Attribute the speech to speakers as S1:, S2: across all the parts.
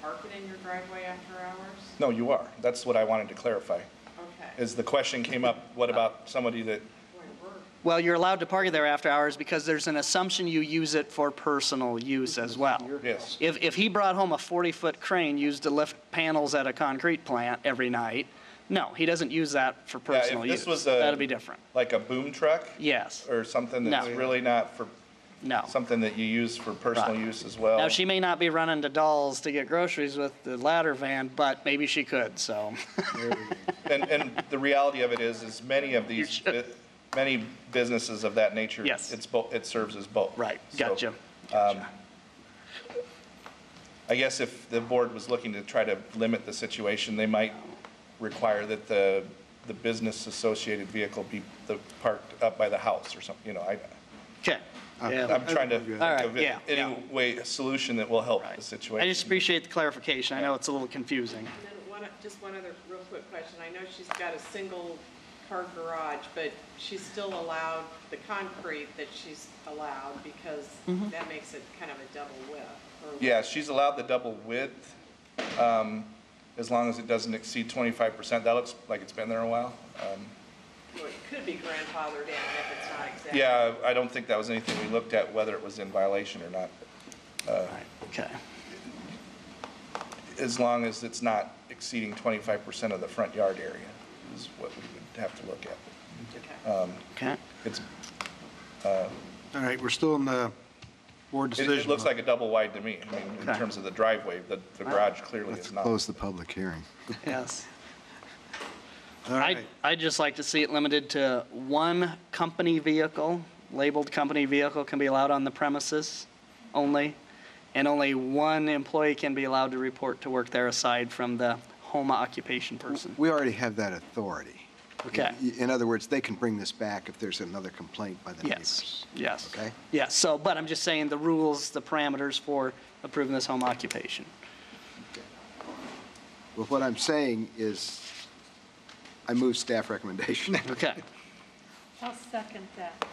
S1: park it in your driveway after hours?
S2: No, you are. That's what I wanted to clarify.
S1: Okay.
S2: Is the question came up, what about somebody that,
S1: Boy, we're-
S3: Well, you're allowed to park it there after hours because there's an assumption you use it for personal use as well.
S2: yes,
S3: If, if he brought home a 40-foot crane used to lift panels at a concrete plant every night, no, he doesn't use that for
S2: if
S3: personal
S2: this
S3: use.
S2: was a-
S3: That'd be different.
S2: like a boom truck
S3: Yes,
S2: or something that's
S3: No.
S2: really not for,
S3: no.
S2: something that you use for personal
S3: Right.
S2: use as well?
S3: Now, she may not be running to Dolls to get groceries with the ladder van, but maybe she could, so.
S2: And, and the reality of it is, is many of these,
S3: You're-
S2: bu- many businesses of that nature.
S3: Yes.
S2: It's both, it serves as both.
S3: Right,
S2: So,
S3: gotcha.
S2: um, I guess if the board was looking to try to limit the situation, they might require that the, the business-associated vehicle be the- parked up by the house or something, you know, I,
S3: Okay. Yeah.
S2: I'm trying to
S3: All right,
S2: think of
S3: yeah,
S2: it- any
S3: yeah.
S2: way, a solution that will help
S3: Right.
S2: the situation.
S3: I just appreciate the clarification. I know it's a little confusing.
S1: And then one, just one other real quick question. I know she's got a single car garage, but she's still allowed the concrete that she's allowed because
S2: Mm-hmm.
S1: that makes it kind of a double width. or-
S2: Yeah, she's allowed the double width, um, as long as it doesn't exceed twenty-five percent. That looks like it's been there a while. Um,
S1: Well, It could be grandfathered in if it's not exactly.
S2: Yeah, I don't think that was anything we looked at, whether it was in violation or not, Uh,
S3: All right, okay.
S2: as long as it's not exceeding twenty-five percent of the front yard area is what we would have to look at.
S1: Okay.
S2: Um,
S3: Okay.
S2: It's,
S4: All right, we're still in the board
S2: it,
S4: decision.
S2: it looks like a double wide to me, I mean, in
S3: Okay.
S2: terms of the driveway, the, the garage clearly
S4: Let's
S2: is not.
S4: close the public hearing.
S3: Yes.
S4: All
S3: I'd,
S4: right,
S3: I'd just like to see it limited to one company vehicle, labeled company vehicle can be allowed on the premises only, and only one employee can be allowed to report to work there aside from the home occupation person.
S4: we already have that authority.
S3: Okay.
S4: In other words, they can bring this back if there's another complaint by the
S3: Yes,
S4: neighbors.
S3: yes.
S4: Okay.
S3: Yes, so, but I'm just saying the rules, the parameters for approving this home occupation.
S4: Well, what I'm saying is, I move staff recommendation.
S3: Okay.
S5: I'll second that.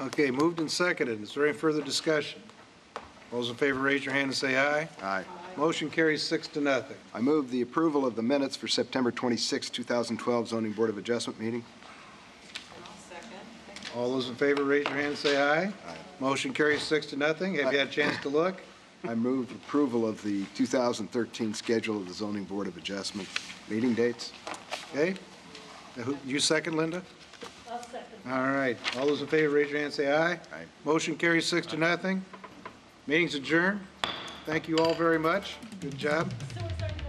S6: Okay, moved and seconded. Is there any further discussion? All Those in favor, raise your hand and say aye.
S4: Aye.
S6: Motion carries six to nothing.
S4: I move the approval of the minutes for September 26, 2012 zoning board of adjustment meeting.
S1: I'll second.
S6: All those in favor, raise your hand and say aye. Motion carries six to nothing. Have you had a chance to look?
S4: I move approval of the 2013 schedule of the zoning board of adjustment meeting dates.
S6: Okay? Now, who- You second, Linda?
S5: I'll second.
S6: All right. All those in favor, raise your hand and say aye.
S4: Aye.
S6: Motion carries six to nothing. Meeting's adjourned. Thank you all very much. Good job.
S5: So is our next